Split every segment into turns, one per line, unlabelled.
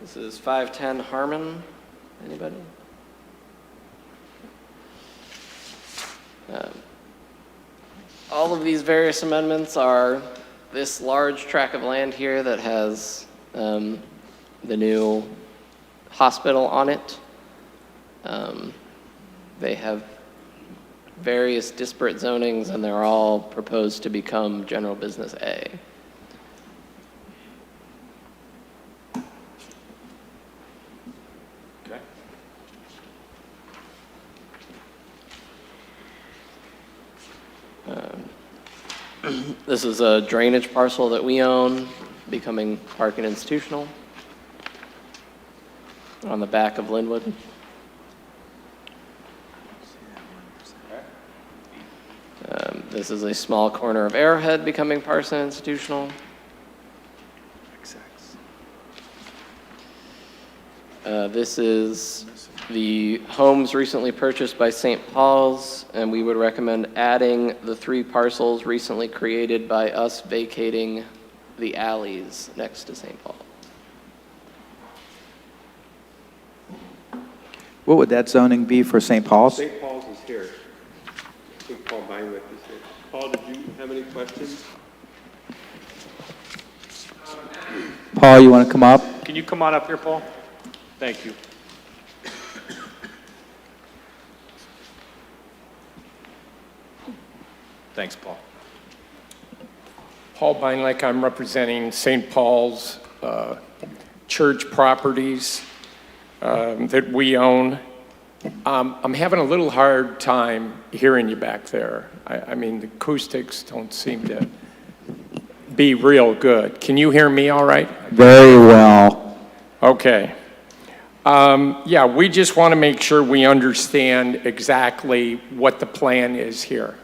This is 510 Harmon. Anybody? Um, All of these various amendments are this large tract of land here that has um, the new hospital on it. Um, They have various disparate zonings, and they're all proposed to become general business A.
Okay.
This is a drainage parcel that we own, becoming park and institutional on the back of Linwood. Um, This is a small corner of Arrowhead becoming park and institutional. Uh, This is the homes recently purchased by St. Paul's, and we would recommend adding the three parcels recently created by us vacating the alleys next to St. Paul.
What would that zoning be for St. Paul's?
St. Paul's is here. I think Paul Beinwick is here. Paul, did you have any questions?
Paul, you want to come up?
Can you come on up here, Paul? Thank you. Thanks, Paul.
Paul Beinlake, I'm representing St. Paul's uh, Church properties um, that we own. Um, I'm having a little hard time hearing you back there. I I mean, the acoustics don't seem to be real good. Can you hear me all right?
Very well.
Okay. Um, Yeah, we just want to make sure we understand exactly what the plan is here.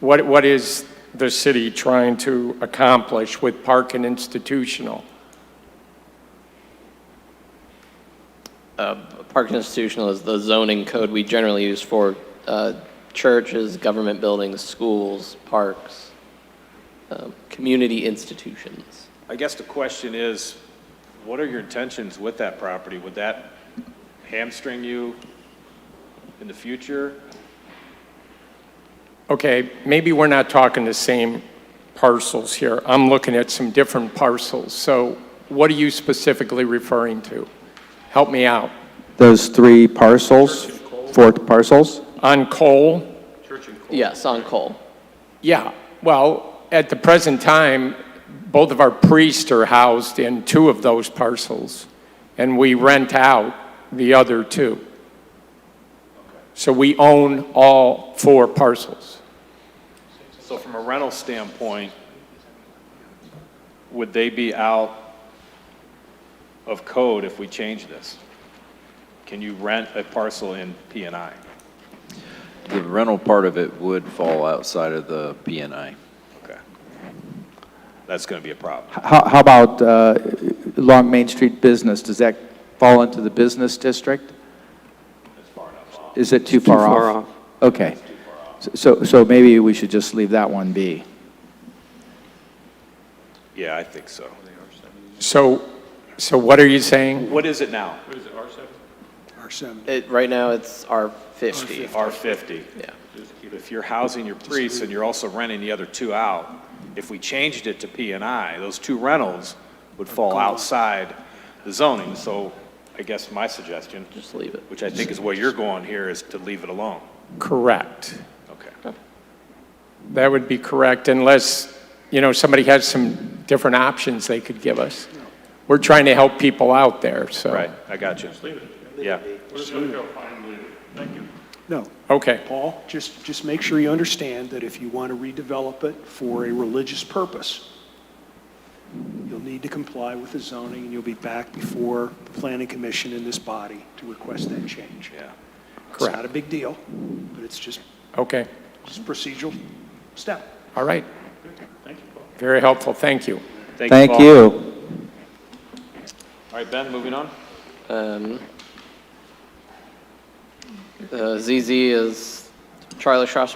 What, what is the city trying to accomplish with Park and Institutional?
Park and institutional is the zoning code we generally use for uh, churches, government buildings, schools, parks, um, community institutions.
I guess the question is, what are your intentions with that property? Would that hamstring you in the future?
Okay, maybe we're not talking the same parcels here. I'm looking at some different parcels. So what are you specifically referring to? Help me out.
Those three parcels, four parcels?
On Cole?
Yes, on Cole.
Yeah, well, at the present time, both of our priests are housed in two of those parcels, and we rent out the other two. So we own all four parcels.
So from a rental standpoint, would they be out of code if we change this? Can you rent a parcel in P and I?
The rental part of it would fall outside of the P and I.
Okay. That's going to be a problem.
How, how about uh, along Main Street Business? Does that fall into the business district? Is it too far off?
far off.
Okay. So, so maybe we should just leave that one be.
Yeah, I think so.
So, so what are you saying?
What is it now?
It, right now, it's R50.
R fifty.
Yeah.
If you're housing your priests and you're also renting the other two out, if we changed it to P and I, those two rentals would fall outside the zoning. So I guess my suggestion,
Just leave it.
which I think is where you're going here, is to leave it alone.
Correct.
Okay.
That would be correct unless, you know, somebody has some different options they could give us. We're trying to help people out there, so.
Right, I got you. Yeah.
No,
Okay.
Paul, just, just make sure you understand that if you want to redevelop it for a religious purpose, you'll need to comply with the zoning, and you'll be back before the planning commission in this body to request that change.
Yeah.
It's not a big deal, but it's just,
Okay.
just a procedural step.
All right. Very helpful, thank you.
Thank
Paul.
you.
All right, Ben, moving on.
Um, uh, ZZ is Charlie Strauss